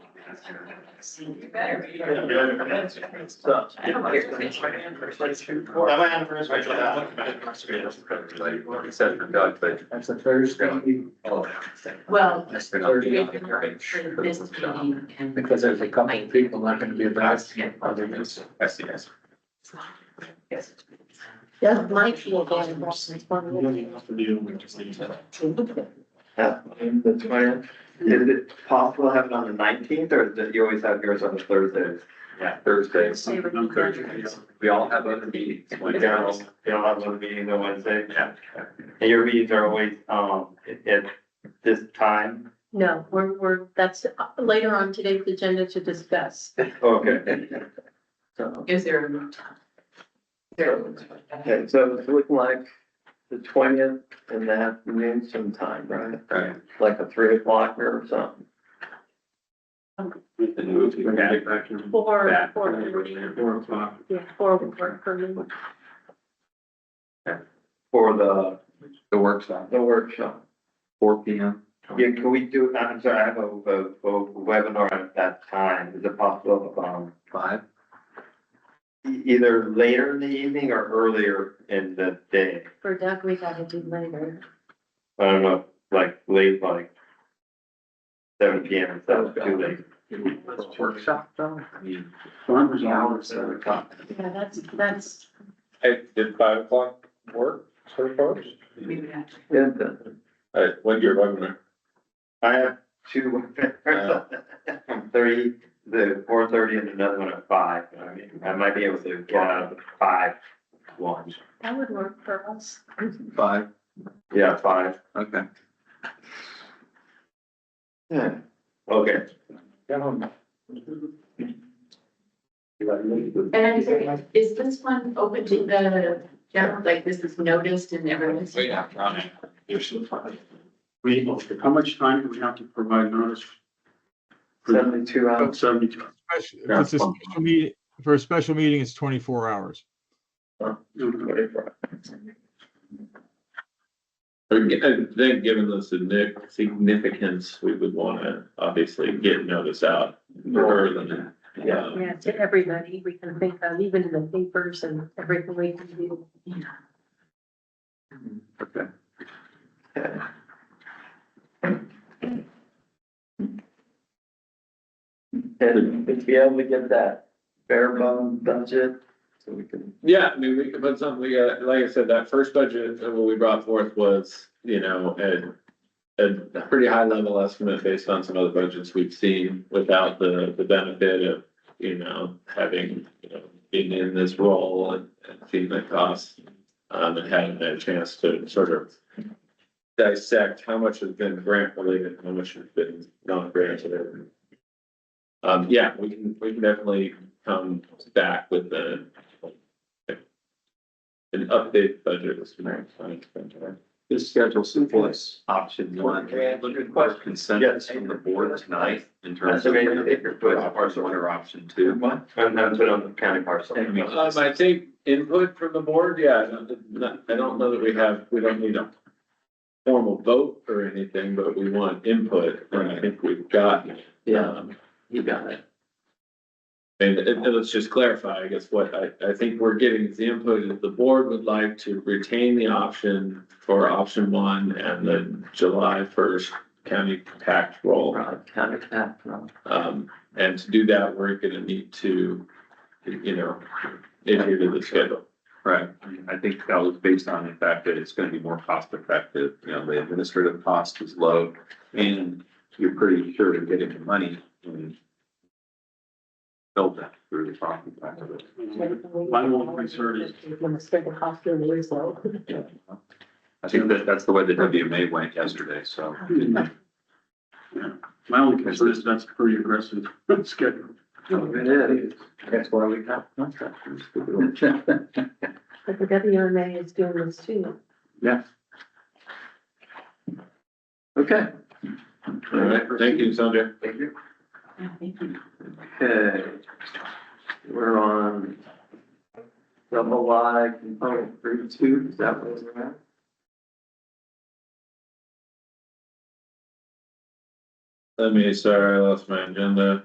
You better be. That might happen first, Rachel. Except for Doug, but. That's the first thing. Well. That's been on the- Because there's a couple of people not gonna be about. Other than. I see, I see. Yeah, my people go in person. it's one of the- The twentieth, is it possible to have it on the nineteenth, or that you always have yours on the Thursdays? Yeah, Thursdays. We all have other meetings. You don't, you don't have one meeting on Wednesday? Yeah. And your meetings are always, um, at, at this time? No, we're, we're, that's uh, later on today's agenda to discuss. Okay. So, Is there a moot time? There. Okay, so it's looking like the twentieth in the afternoon sometime, right? Right. Like a three o'clock or something. Four, Back. four thirty, Four o'clock. yeah, four would work for me. For the, The workshop, the workshop. four P M. Yeah, can we do, I'm sorry, I have a, a, a webinar at that time. Is it possible, um, Five. e- either later in the evening or earlier in the day? For Doug, we gotta do later. I don't know, like late, like seven P M, if that's too late. Workshop though? I mean. Yeah, that's, that's, Hey, did five o'clock work for folks? We would have to. Yeah, All right, when you're running, I have two, Yeah. from thirty, the four thirty and another one at five. I mean, I might be able to get out of the five one. that would work for us. Five, Yeah, five. okay. Yeah. Okay. And I'm sorry, is this one open to the general, like this is noticed and everyone's? We, how much time do we have to provide notice? Seventy-two hours. Seventy-two. Special- If it's a fine. special meeting, for a special meeting, it's twenty-four hours. and then given the signi- significance, we would wanna obviously get notice out more than. Yeah. Yeah, to everybody, we can think of, even in the papers and everything we can do. Okay. And if we able to get that bare bone budget, so we can. Yeah, I mean, we could put something, we got, like I said, that first budget, uh, what we brought forth was, you know, a. A pretty high level estimate based on some other budgets we've seen without the, the benefit of, you know, having, you know, being in this role and, and seeing the costs. Um, and having that chance to sort of dissect how much has been grant related, how much has been non-grant related. Um, yeah, we can, we can definitely come back with the, an update budget is tonight. This schedule simplifies option one. Look at what consensus from the board tonight in terms of. Estimated acre foot. Parcel one or option two. What? I'm, I'm put on the county parcel. And we- Um, I take input from the board, yeah, not- not- I don't know that we have, we don't need a formal vote or anything, but we want input, and I think we've gotten. it. Um, you got it. And, and and let's just clarify, I guess, what I, I think we're getting is the input that the board would like to retain the option for option one and the July first county pact roll. County cap, no. Um, and to do that, we're gonna need to, you know, adhere to the schedule. Right. I mean, I think that was based on the fact that it's gonna be more cost effective, you know, the administrative cost is low and you're pretty sure to get into money and build that through the profit factor. My one concern is- When the state of hospital is low. I think that that's the way the WMA went yesterday, so. My only concern is that's pretty aggressive schedule. It is. That's why we have contractors. But the WMA is doing this too. Okay. All right, thank you, Sandra. Thank you. Yeah, thank you. Okay, we're on double Y component three two, is that what we're at? Let me, sorry, I lost my agenda.